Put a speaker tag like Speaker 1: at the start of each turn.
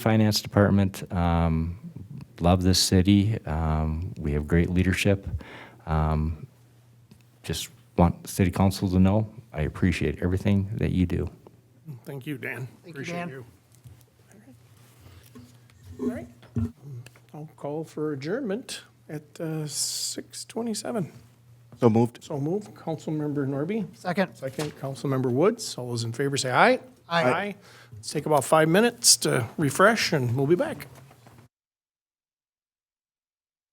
Speaker 1: Finance Department. Um, Love this city. Um, We have great leadership. Um, Just want city council to know, I appreciate everything that you do.
Speaker 2: Thank you, Dan.
Speaker 3: you,
Speaker 2: Appreciate
Speaker 3: Dan.
Speaker 2: you. All right. I'll call for adjournment at uh, 6:27.
Speaker 4: So moved.
Speaker 2: So move, Councilmember Norby.
Speaker 3: Second.
Speaker 2: Second, Councilmember Woods. All those in favor say aye.
Speaker 3: Aye.
Speaker 2: Let's take about five minutes to refresh, and we'll be back.